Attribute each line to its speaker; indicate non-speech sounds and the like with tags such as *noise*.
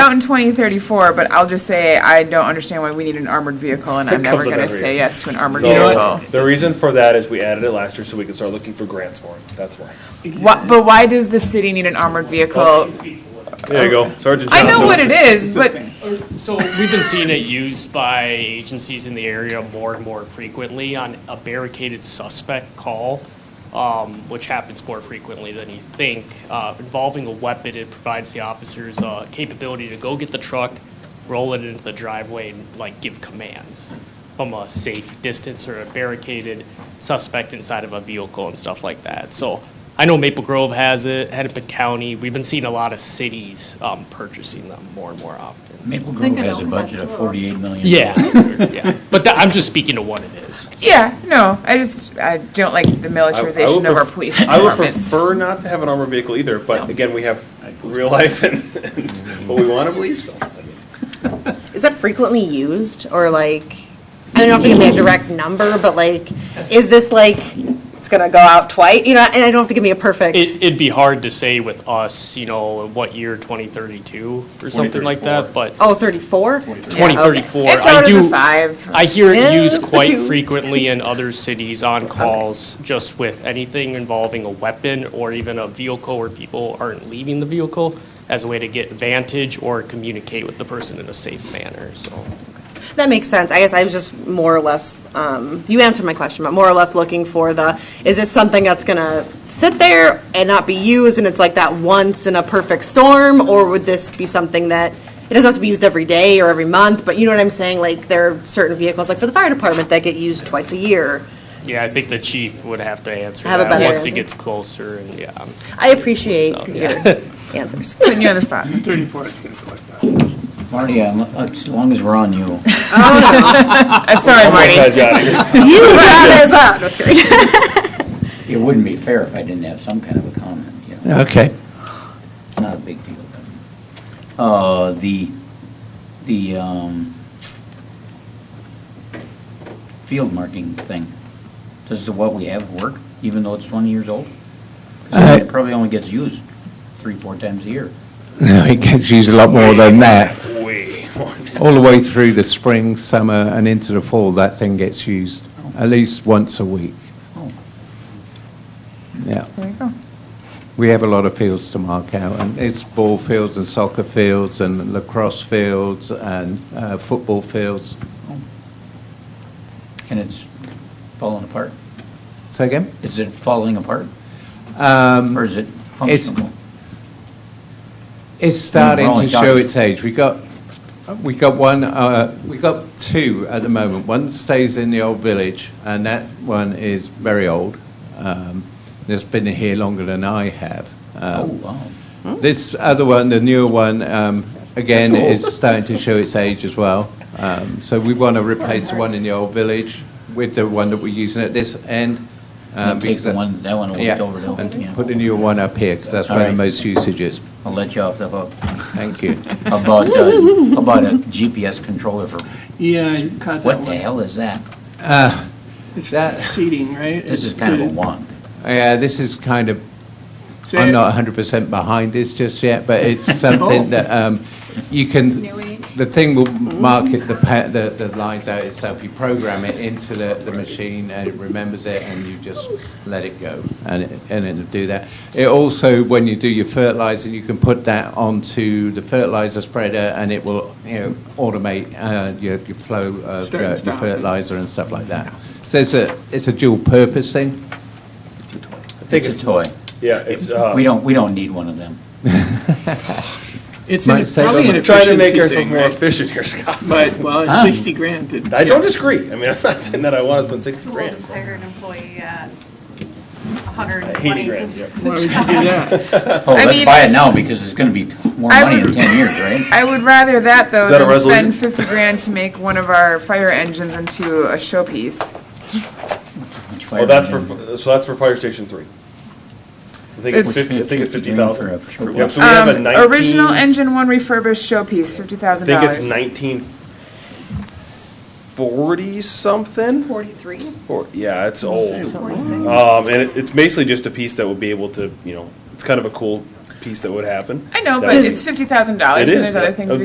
Speaker 1: out in 2034, but I'll just say I don't understand why we need an armored vehicle, and I'm
Speaker 2: It
Speaker 1: never
Speaker 2: comes up
Speaker 1: going to
Speaker 2: every
Speaker 1: say
Speaker 2: year.
Speaker 1: yes to an armored
Speaker 2: So, uh,
Speaker 1: vehicle.
Speaker 2: The reason for that is we added it last year so we could start looking for grants for it, that's why.
Speaker 1: Wha- But why does the city need an armored vehicle?
Speaker 2: There you go, Sergeant
Speaker 1: Oh. I know what it is, but
Speaker 3: So we've been seeing it used by agencies in the area more and more frequently on a barricaded suspect call, um, which happens more frequently than you think. Uh, Involving a weapon, it provides the officers uh, capability to go get the truck, roll it into the driveway, and like give commands from a safe distance or a barricaded suspect inside of a vehicle and stuff like that. So I know Maple Grove has it, Hennepin County. We've been seeing a lot of cities um, purchasing them more and more often.
Speaker 4: Maple
Speaker 5: think
Speaker 4: Grove
Speaker 5: it
Speaker 4: has a
Speaker 5: only
Speaker 4: budget
Speaker 5: has
Speaker 4: of
Speaker 5: four.
Speaker 4: forty-eight million.
Speaker 3: Yeah, yeah. But that, I'm just speaking to what it is.
Speaker 1: yeah, no, I just, I don't like the militarization of our police
Speaker 2: I would
Speaker 1: departments.
Speaker 2: prefer not to have an armored vehicle either, but again, we have real life and, and what we want to believe, so.
Speaker 6: Is that frequently used or like, I don't think give me a direct number, but like, is this like, it's gonna go out twice? You know, and I don't have to give me a perfect.
Speaker 3: It, it'd be hard to say with us, you know, what year, 2032 or something like that, but
Speaker 6: Oh, 34?
Speaker 3: 2034,
Speaker 1: It's
Speaker 3: I
Speaker 1: out of the
Speaker 3: do,
Speaker 1: five.
Speaker 3: I hear it
Speaker 6: Yeah,
Speaker 3: used
Speaker 6: but
Speaker 3: quite
Speaker 6: you-
Speaker 3: frequently in other cities on calls, just with anything involving a weapon or even a vehicle where people aren't leaving the vehicle as a way to get vantage or communicate with the person in a safe manner, so.
Speaker 6: That makes sense. I guess I was just more or less, um, you answered my question, but more or less looking for the, is this something that's gonna sit there and not be used, and it's like that once in a perfect storm? Or would this be something that, it doesn't have to be used every day or every month, but you know what I'm saying? Like, there are certain vehicles, like for the fire department, that get used twice a year.
Speaker 3: Yeah, I think the chief would have to answer
Speaker 6: Have a
Speaker 3: that
Speaker 6: better
Speaker 3: once it
Speaker 6: answer.
Speaker 3: gets closer and, yeah.
Speaker 6: I appreciate
Speaker 3: So,
Speaker 6: your
Speaker 3: yeah.
Speaker 6: answers.
Speaker 1: Putting you on the
Speaker 2: *laughs*
Speaker 1: spot.
Speaker 4: Marty, I'm- as long as we're on you.
Speaker 1: Uh, Sorry, Marty.
Speaker 2: *laughs*
Speaker 6: You brought us up. No, just kidding.
Speaker 4: It wouldn't be fair if I didn't have some kind of a comment, you know.
Speaker 7: Okay.
Speaker 4: It's not a big deal. but, Uh, the, the, um, field marking thing, does the what we have work, even though it's twenty years old? 'Cause I mean,
Speaker 7: Uh,
Speaker 4: It probably only gets used three, four times a year.
Speaker 7: No, *laughs* it gets used a lot more than that.
Speaker 1: *laughs*
Speaker 2: Way more.
Speaker 7: All the way through the spring, summer, and into the fall, that thing gets used at least once a week.
Speaker 4: Oh.
Speaker 7: Yeah.
Speaker 1: There you go.
Speaker 7: We have a lot of fields to mark out, and it's ball fields and soccer fields and lacrosse fields and uh, football fields.
Speaker 4: And it's falling apart?
Speaker 7: Say again?
Speaker 4: Is it falling apart? Or
Speaker 7: Um,
Speaker 4: is it
Speaker 7: It's-
Speaker 4: functional?
Speaker 7: it's starting
Speaker 4: only
Speaker 7: to show
Speaker 4: talking-
Speaker 7: its age. We got, we got one, uh, we got two at the moment. One stays in the old village, and that one is very old. Um, it's been here longer than I have.
Speaker 8: uh,
Speaker 4: Oh,
Speaker 7: Um,
Speaker 4: wow.
Speaker 7: This other one, the newer one, um, again,
Speaker 4: That's
Speaker 7: is starting to show its age as well. Um, So we want to replace the one in the old village with the one that we're using at this end. um,
Speaker 4: Take
Speaker 7: because
Speaker 4: the
Speaker 7: that's-
Speaker 4: one, that one
Speaker 7: Yeah,
Speaker 4: will over to,
Speaker 7: and
Speaker 4: yeah.
Speaker 7: put the newer one up here, because that's where the
Speaker 4: Alright.
Speaker 7: most usage is.
Speaker 4: I'll let you off the hook.
Speaker 7: Thank you.
Speaker 4: About, uh, about a GPS controller for,
Speaker 8: Yeah, you caught that
Speaker 4: what the
Speaker 8: one.
Speaker 4: hell is that?
Speaker 8: It's
Speaker 7: That-
Speaker 8: *laughs* seating, right?
Speaker 4: This is
Speaker 8: It's
Speaker 4: kind of a
Speaker 8: to
Speaker 4: wonk.
Speaker 7: Yeah, this is kind of,
Speaker 8: say-
Speaker 7: I'm not 100% behind this just yet, but
Speaker 8: *laughs*
Speaker 7: it's Oh. something that um, you can,
Speaker 5: New age.
Speaker 7: the thing will mark it, the pa- the the lines out itself. You program it into the the machine, and it remembers it, and you just let it go, and it- and it'll do that. It also, when you do your fertilizer, you can put that onto the fertilizer spreader, and it will, you know, automate uh, your your flow of uh,
Speaker 8: Start and
Speaker 7: your
Speaker 8: stop.
Speaker 7: fertilizer and stuff like that. So it's a it's a dual-purpose thing.
Speaker 2: think
Speaker 4: It's a toy.
Speaker 2: Yeah, it's, uh,
Speaker 4: We don't, we don't need one of them.
Speaker 8: It's
Speaker 7: might
Speaker 8: an-
Speaker 7: say
Speaker 8: probably
Speaker 7: that-
Speaker 8: an
Speaker 2: we're trying to make
Speaker 8: efficiency
Speaker 2: ourselves
Speaker 8: thing,
Speaker 2: more
Speaker 8: right?
Speaker 2: efficient here, Scott.
Speaker 8: But, well, it's
Speaker 4: Huh?
Speaker 8: 60 grand. to-
Speaker 2: Ah. I don't disagree, I mean, I'm not saying that I want to spend sixty
Speaker 5: School just
Speaker 2: grand.
Speaker 5: hired an employee uh, at
Speaker 2: Eighty
Speaker 5: 120.
Speaker 2: grand, yeah.
Speaker 8: Why would you do that?
Speaker 4: Oh,
Speaker 1: I
Speaker 4: let's
Speaker 1: mean-
Speaker 4: buy it now because it's going to be more
Speaker 1: I
Speaker 4: money in
Speaker 1: would-
Speaker 4: 10 years,
Speaker 1: *laughs*
Speaker 4: right?
Speaker 1: I would rather that though
Speaker 2: Is that a
Speaker 1: than spend
Speaker 2: resolution?
Speaker 1: fifty grand to make one of our fire engines into a showpiece.
Speaker 4: Which way
Speaker 2: Well, that's for,
Speaker 4: are we gonna-
Speaker 2: so that's for fire station three. I think it's
Speaker 1: It's-
Speaker 2: fifty, I think it's
Speaker 4: 50
Speaker 2: fifty
Speaker 4: grand
Speaker 2: thousand.
Speaker 4: for a-
Speaker 2: Yeah, so we have a
Speaker 1: Um,
Speaker 2: nineteen.
Speaker 1: Original engine one refurbished showpiece, fifty
Speaker 2: I
Speaker 1: thousand
Speaker 2: think
Speaker 1: dollars.
Speaker 2: it's nineteen forty something.
Speaker 5: 43?
Speaker 2: Or, yeah, it's old.
Speaker 5: 46?
Speaker 2: Um, and it, it's basically just a piece that would be able to, you know, it's kind of a cool piece that would happen.
Speaker 1: I know,
Speaker 2: That
Speaker 1: but
Speaker 2: would-
Speaker 1: it's fifty thousand dollars, and
Speaker 2: It is,
Speaker 1: there's other
Speaker 2: yeah.
Speaker 1: things
Speaker 2: Uh,
Speaker 1: we